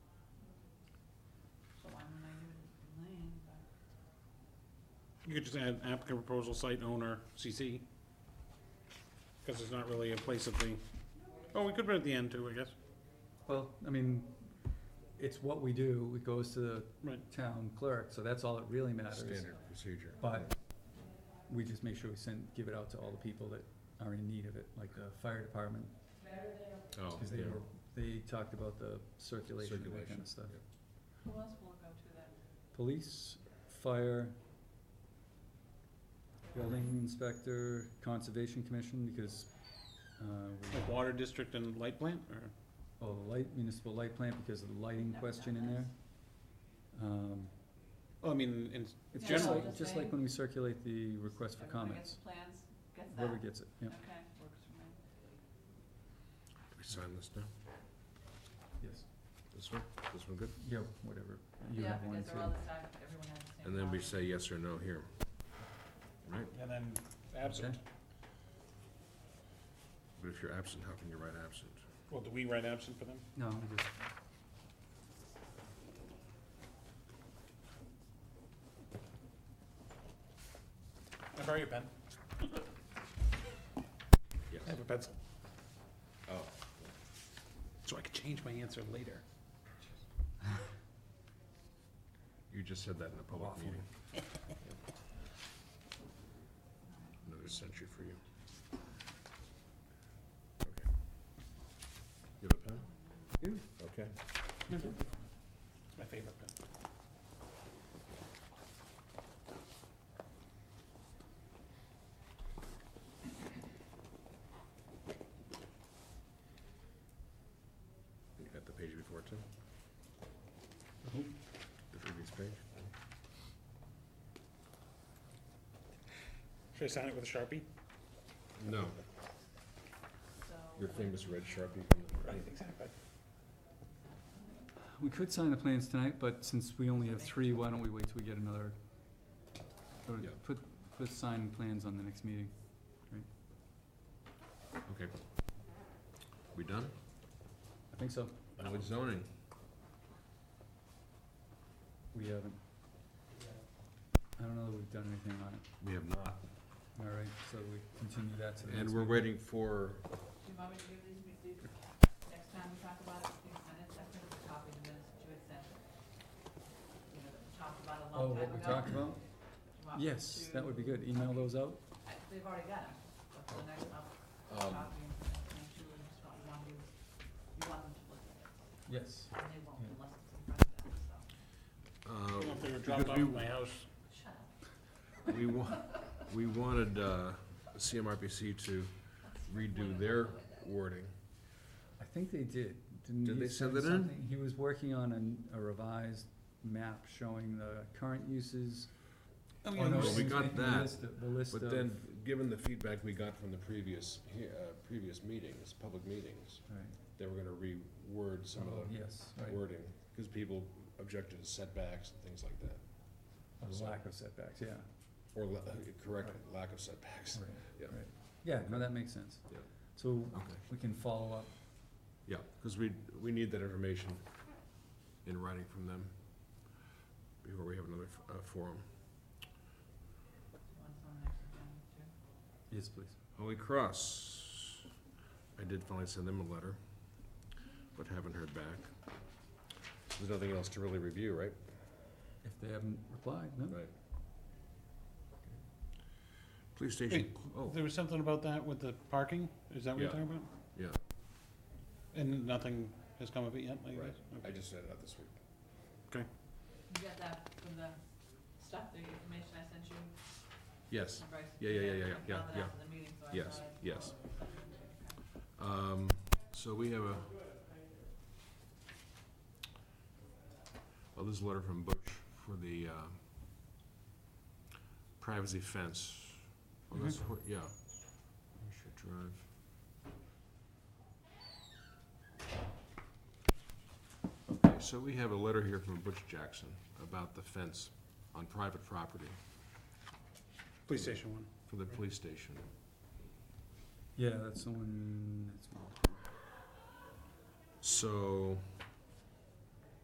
You could just add applicant proposal, site owner, CC. Because it's not really a place of the, oh, we could put it at the end too, I guess. Well, I mean, it's what we do, it goes to the Right. town clerk, so that's all that really matters. Standard procedure. But we just make sure we send, give it out to all the people that are in need of it, like the fire department, Oh, cause they yeah. were, they talked about the circulation, and that kind Circulation, of stuff. yeah. Who else will go to that? Police, fire, building inspector, conservation commission, because, uh, we, Like water district and light plant, or, oh, the light, municipal light plant, because of the lighting That- question that in there. last- Um, oh, I mean, in, It's Yeah, just no, like, just just like saying. when we circulate the request for Everyone gets comments, plans, gets that? whoever gets it, yeah, Okay, works for me. Do we sign this now? yes, This one? This one good? yeah, whatever, you have Yeah, one because they're all too. the same, everyone has the same. And then we copy. say yes or no here. Right? and then absent. But if you're absent, how can you write absent? Well, do we write absent for them? No, we just, I borrow your pen? Yes. I have a pencil. Oh. So I could change my answer later. You just said that in a public Waffle. meeting. Another century for you. Okay. You have a pen? Yeah. Okay. It's my favorite pen. You got the page before too? Mm-hmm. The previous page? Should I sign it with a Sharpie? No, So. your famous red Sharpie. Right, exactly. we could sign the plans tonight, but since we only have three, why don't we wait till we get another? Or Yeah. put, put sign plans on the next meeting, Okay. We done? I think so, Now it's zoning. we haven't. I don't know that we've done anything on it, We have not. all right, so we continue that to the next And we're meeting. waiting for, Do you want me to give these, we do, next time we talk about it, these minutes, I printed a copy of the minutes that you had sent. You know, that we talked about a Oh, long time ago. what we talked about? Do you want me Yes, that to- would be good, email those out, I- They've already got them, but for the next, I'll um, copy and make sure we just want, you want you, you want them to look at it, yes, and they won't Yeah. unless it's in front of them, so. I uh, don't know if they were dropped because off at my house. Shut up. we, we wa- we wanted, uh, CMRPC to redo their wording. I think they did, didn't Did he they send send it in? something? He was working on an- a revised map showing the current uses. Oh, Oh, no, we excuse me, got the that, list of- The list of. But then, given the feedback we got from the previous, he- uh, previous meetings, public meetings, Right, they were gonna reword some oh, of yes, the right, wording, cause people objected to setbacks and things like that. Oh, the so- lack of setbacks, yeah, Or la- uh, correct, lack of setbacks. right, Yeah. right. Yeah, no, that makes sense. Yeah. So Okay. we can follow up, Yeah, because we, we need that information in writing from them before we have another f- uh, forum. One's on the next agenda, too. yes, please. Holy Cross, I did finally send them a letter, but haven't heard back. There's nothing else to really review, right? If they haven't replied, no? Right. Police station, oh, There was something about that with the parking, is that what you're Yeah. talking about? yeah, And nothing has come of it yet, I guess? right, Okay. I just sent it out this week. You got that from the stuff, the information I sent you, Yes, from Bryce? Yeah, yeah, yeah, yeah, yeah, I found it yeah. after the meeting, so I Yes, thought I'd yes. forward it. um, so we have a, well, this is a letter from Bush for the, uh, privacy fence. Well, that's where, yeah. Hampshire Drive. Okay, so we have a letter here from Butch Jackson about the fence on private property Police station one. for the police station. Yeah, that's someone, that's, So,